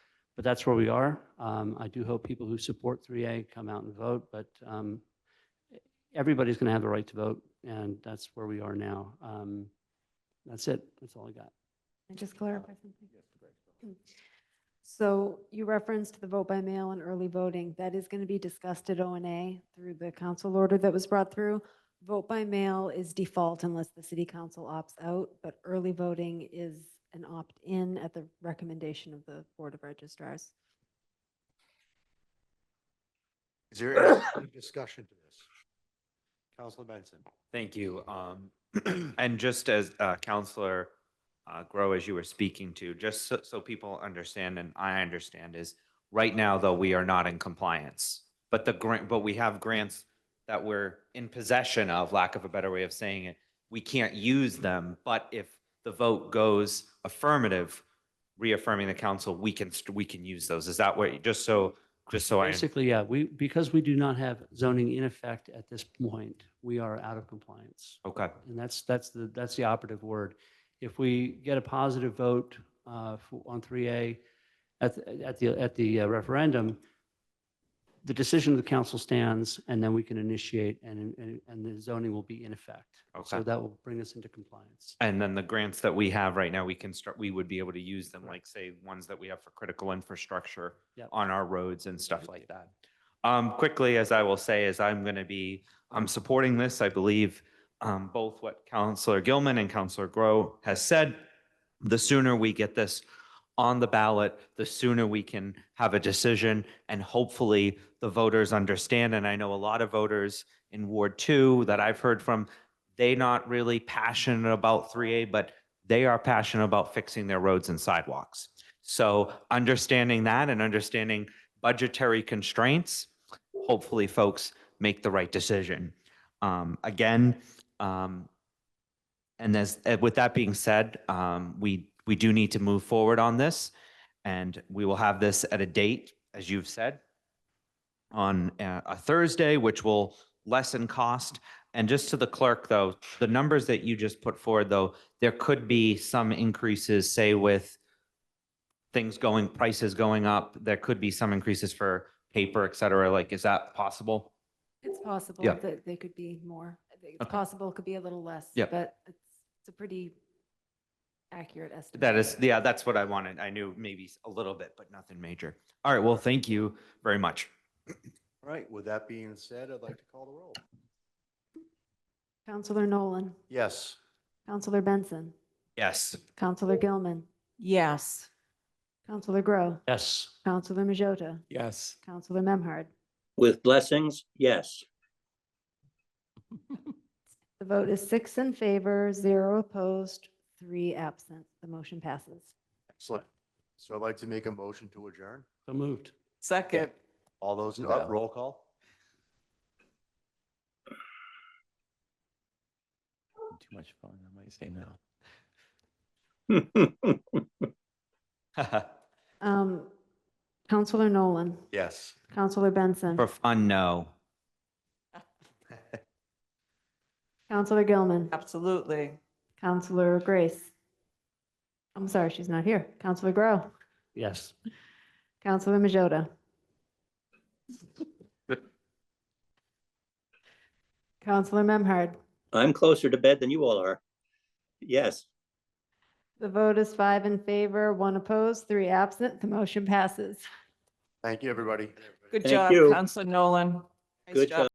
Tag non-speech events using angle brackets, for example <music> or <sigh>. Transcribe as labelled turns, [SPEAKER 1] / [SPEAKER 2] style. [SPEAKER 1] but that's where we are. Um, I do hope people who support 3A come out and vote, but um, everybody's going to have the right to vote, and that's where we are now. Um, That's it. That's all I got.
[SPEAKER 2] I just clarify something? So you referenced the vote by mail and early voting. That is going to be discussed at O and A through the council order that was brought through. Vote by mail is default unless the city council opts out, but early voting is an opt-in at the recommendation of the Board of registrars.
[SPEAKER 3] Is there <coughs> any discussion to this? Counselor Benson?
[SPEAKER 4] Thank you. Um, And just as uh, Counselor uh, Grow, as you were speaking to, just so- so people understand and I understand is, right now, though, we are not in compliance. But the grant, but we have grants that we're in possession of, lack of a better way of saying it. We can't use them, but if the vote goes affirmative, reaffirming the council, we can, st- we can use those. Is that what, just so, just so I,
[SPEAKER 1] Basically, yeah, we, because we do not have zoning in effect at this point, we are out of compliance.
[SPEAKER 4] okay,
[SPEAKER 1] And that's, that's the, that's the operative word. If we get a positive vote uh, for- on 3A at, the- at the, at the uh, referendum, the decision of the council stands and then we can initiate and, and, and the zoning will be in effect. So
[SPEAKER 4] Okay.
[SPEAKER 1] that will bring us into compliance.
[SPEAKER 4] And then the grants that we have right now, we can start, we would be able to use them, like say, ones that we have for critical infrastructure
[SPEAKER 1] Yep.
[SPEAKER 4] on our roads and stuff like that. Um, quickly, as I will say, is I'm going to be, I'm supporting this. I believe um, both what Counselor Gilman and Counselor Grow has said. The sooner we get this on the ballot, the sooner we can have a decision and hopefully the voters understand. And I know a lot of voters in Ward Two that I've heard from, they not really passionate about 3A, but they are passionate about fixing their roads and sidewalks. So understanding that and understanding budgetary constraints, hopefully folks make the right decision. Um, again, um, and as, uh, with that being said, um, we, we do need to move forward on this. And we will have this at a date, as you've said, on uh, a Thursday, which will lessen cost. And just to the clerk, though, the numbers that you just put forward, though, there could be some increases, say with things going, prices going up, there could be some increases for paper, et cetera. Like, is that possible?
[SPEAKER 2] It's possible
[SPEAKER 4] Yeah.
[SPEAKER 2] that they could be more. It's
[SPEAKER 4] Okay.
[SPEAKER 2] possible it could be a little less,
[SPEAKER 4] Yeah.
[SPEAKER 2] but it's, it's a pretty accurate estimate.
[SPEAKER 4] That is, yeah, that's what I wanted. I knew maybe a little bit, but nothing major. All right, well, thank you very much.
[SPEAKER 3] All right, with that being said, I'd like to call the roll.
[SPEAKER 2] Counselor Nolan,
[SPEAKER 3] Yes.
[SPEAKER 2] Counselor Benson,
[SPEAKER 4] Yes. <laughs>
[SPEAKER 2] Counselor Gilman,
[SPEAKER 5] Yes.
[SPEAKER 2] Counselor Grow,
[SPEAKER 1] Yes.
[SPEAKER 2] Counselor Majota,
[SPEAKER 6] Yes.
[SPEAKER 2] Counselor Memhard.
[SPEAKER 7] With blessings, yes.
[SPEAKER 2] The vote is six in favor, zero opposed, three absent. The motion passes.
[SPEAKER 3] Excellent. So I'd like to make a motion to adjourn.
[SPEAKER 1] So moved.
[SPEAKER 6] Second.
[SPEAKER 3] All those, in- uh, roll call?
[SPEAKER 6] Too much fun. I might say no.
[SPEAKER 4] For
[SPEAKER 2] Um, Counselor Nolan,
[SPEAKER 3] Yes.
[SPEAKER 2] Counselor Benson,
[SPEAKER 4] fun, no.
[SPEAKER 2] Counselor Gilman,
[SPEAKER 5] Absolutely.
[SPEAKER 2] Counselor Grace. I'm sorry, she's not here. Counselor Grow,
[SPEAKER 1] Yes.
[SPEAKER 2] Counselor Majota. Counselor Memhard.
[SPEAKER 7] I'm closer to bed than you all are. Yes.
[SPEAKER 2] The vote is five in favor, one opposed, three absent. The motion passes.
[SPEAKER 3] Thank you, everybody.
[SPEAKER 5] Good
[SPEAKER 7] Thank
[SPEAKER 5] job,
[SPEAKER 7] you.
[SPEAKER 5] Counselor Nolan. Nice
[SPEAKER 7] Good job.